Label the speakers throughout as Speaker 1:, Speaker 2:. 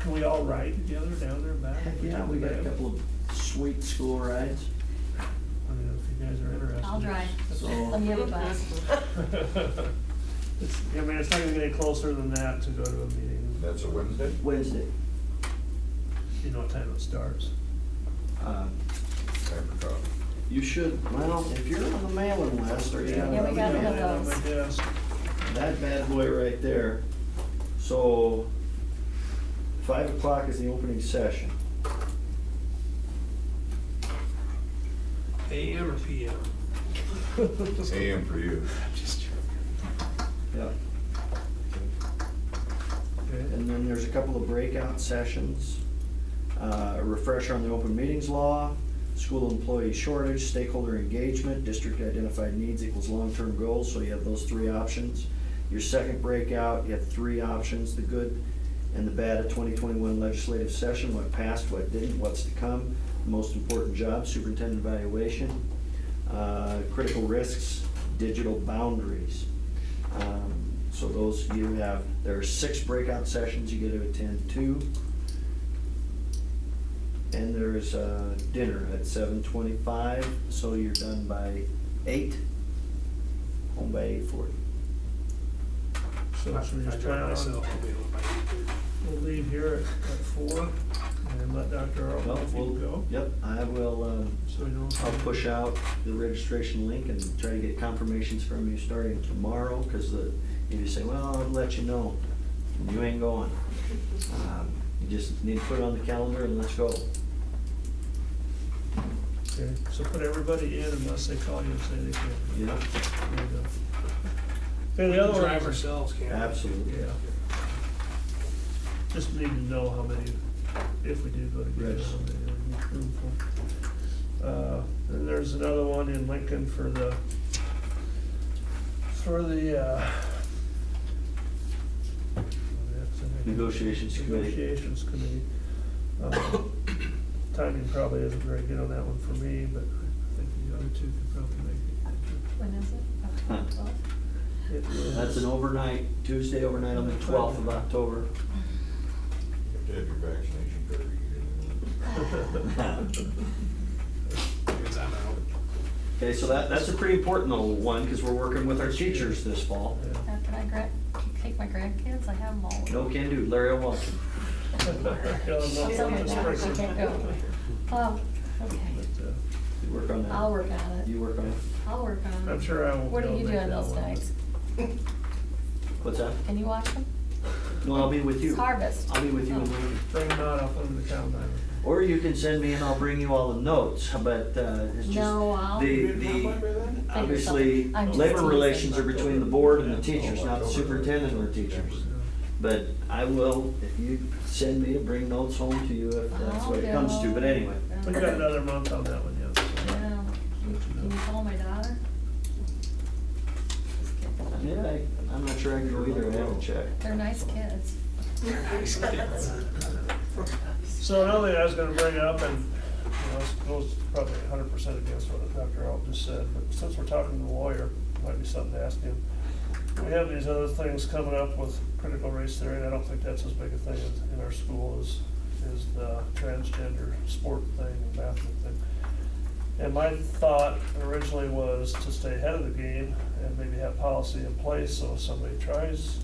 Speaker 1: Can we all ride together down there and back?
Speaker 2: Heck, yeah, we got a couple of sweet school rides,
Speaker 1: I don't know if you guys are interested.
Speaker 3: I'll drive. Let
Speaker 2: so,
Speaker 3: me have a bus.
Speaker 1: It's, I mean, it's not even getting closer than that to go to a meeting.
Speaker 4: That's a Wednesday?
Speaker 2: Wednesday,
Speaker 1: You know what time it starts.
Speaker 2: uh,
Speaker 4: Time for coffee.
Speaker 2: you should, well, if you're on the mailing list, or you have.
Speaker 3: Yeah, we got
Speaker 2: an
Speaker 3: one of
Speaker 2: email,
Speaker 1: On my desk.
Speaker 2: That bad boy right there, so, five o'clock is the opening session,
Speaker 1: AM or PM?
Speaker 4: It's AM for you.
Speaker 2: yeah.
Speaker 1: Okay.
Speaker 2: And then there's a couple of breakout sessions, uh, a refresher on the open meetings law, school employee shortage, stakeholder engagement, district identified needs equals long-term goals, so you have those three options. Your second breakout, you have three options, the good and the bad of twenty twenty-one legislative session, what passed, what didn't, what's to come, the most important job, superintendent evaluation, uh, critical risks, digital boundaries. Um, So those, you have, there are six breakout sessions you get to attend to. And there's uh, dinner at seven twenty-five, so you're done by eight, home by eight forty.
Speaker 1: So should we just try it out? We'll leave here at at four and let Dr. Arlen
Speaker 2: Well,
Speaker 1: if you go.
Speaker 2: Yep, I will, um,
Speaker 1: So we know.
Speaker 2: I'll push out the registration link and try to get confirmations from you starting tomorrow, because the, if you say, well, I'll let you know, you ain't going. Um, You just need to put it on the calendar and let's go.
Speaker 1: Okay, so put everybody in unless they call you and say they can't.
Speaker 2: Yeah,
Speaker 1: There you go. Okay, the other one.
Speaker 5: Drive ourselves, can't we?
Speaker 2: absolutely.
Speaker 1: Yeah. Just need to know how many, if we do go together,
Speaker 2: Yes.
Speaker 1: how many are in the room for. Uh, Then there's another one in Lincoln for the, for the, uh. what is it?
Speaker 2: Negotiations committee.
Speaker 1: Negotiations committee. Um, Timing probably isn't very good on that one for me, but I think the other two could probably make
Speaker 3: When is
Speaker 2: Huh.
Speaker 3: it? Twelve?
Speaker 1: it. It is-
Speaker 2: That's an overnight, Tuesday overnight on the twelfth of October.
Speaker 4: You have to have your vaccination card to get
Speaker 5: Because I'm out.
Speaker 2: Okay, so that, that's a pretty important little one, because we're working with our teachers this fall.
Speaker 1: Yeah.
Speaker 3: After I gra, take my grandkids, I have them all.
Speaker 2: No can do, Larry will watch
Speaker 3: Oh, okay.
Speaker 2: You work on that.
Speaker 3: I'll work on
Speaker 2: You
Speaker 3: it.
Speaker 2: work on it.
Speaker 3: I'll work on it.
Speaker 1: uh, I'm sure I won't.
Speaker 3: What
Speaker 1: be
Speaker 3: are
Speaker 1: able
Speaker 3: you
Speaker 1: to make
Speaker 3: doing
Speaker 1: that
Speaker 3: those
Speaker 1: one, but-
Speaker 3: nights?
Speaker 2: What's that?
Speaker 3: Can you watch them?
Speaker 2: No, I'll be with you.
Speaker 3: It's harvest. Oh.
Speaker 2: I'll be with you in Lincoln.
Speaker 1: Bring them out, I'll put them in the calendar.
Speaker 2: Or you can send me and I'll bring you all the notes, but uh, it's just.
Speaker 3: No, I'll-
Speaker 2: The,
Speaker 4: in. You didn't
Speaker 2: the,
Speaker 4: have one by then?
Speaker 2: obviously,
Speaker 3: I'm just
Speaker 2: labor
Speaker 3: teasing.
Speaker 2: relations are between the board and the teachers,
Speaker 4: Oh,
Speaker 2: not the
Speaker 4: October.
Speaker 2: superintendent or the teachers. But I will, if you send me to bring notes home to you, if that's what it comes to,
Speaker 3: Oh,
Speaker 2: but anyway.
Speaker 1: We got another month on that one, yeah. so-
Speaker 3: Yeah. Can can you call my daughter? Just kidding.
Speaker 2: Yeah, I, I'm not sure I can go either, I haven't checked.
Speaker 3: They're nice kids.
Speaker 1: So another thing I was gonna bring up, and, you know, this goes probably hundred percent against what Dr. Alt just said, but since we're talking to the lawyer, might be something to ask him. We have these other things coming up with critical race theory, and I don't think that's as big a thing in- in our school as, is the transgender sport thing and bathroom thing. And my thought originally was to stay ahead of the game and maybe have policy in place, so if somebody tries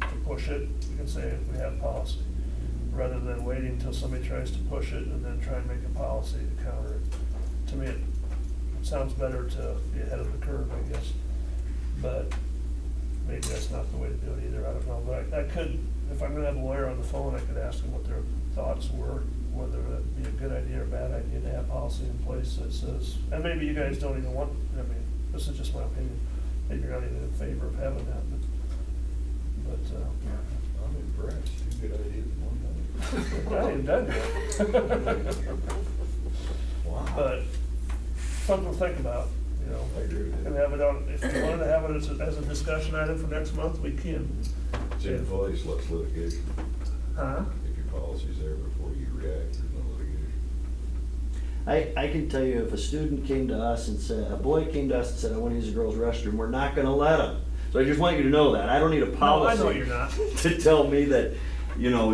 Speaker 1: to push it, we can say we have policy, rather than waiting until somebody tries to push it and then try and make a policy to counter it. To me, it sounds better to be ahead of the curve, I guess, but maybe that's not the way to do it either, I don't know. But I- I could, if I'm gonna have a lawyer on the phone, I could ask them what their thoughts were, whether it'd be a good idea or a bad idea to have policy in place that says, and maybe you guys don't even want, I mean, this is just my opinion, maybe you're not even in favor of having that, but, but, uh,
Speaker 4: I'm impressed. Two good ideas in one night.
Speaker 1: I ain't done yet.
Speaker 4: Wow.
Speaker 1: But something to think about, you know.
Speaker 4: I agree with
Speaker 1: And
Speaker 4: you.
Speaker 1: have it on, if you wanted to have it as a, as a discussion item for next month, we can.
Speaker 4: It's in place, let's litigation.
Speaker 1: Huh?
Speaker 4: If your policy's there before you react, there's no litigation.
Speaker 2: I, I can tell you if a student came to us and said, a boy came to us and said, I wanna use a girl's restroom, we're not gonna let him. So I just want you to know that, I don't need a
Speaker 1: No, I
Speaker 2: policy.
Speaker 1: know you're not.
Speaker 2: To tell me that, you know,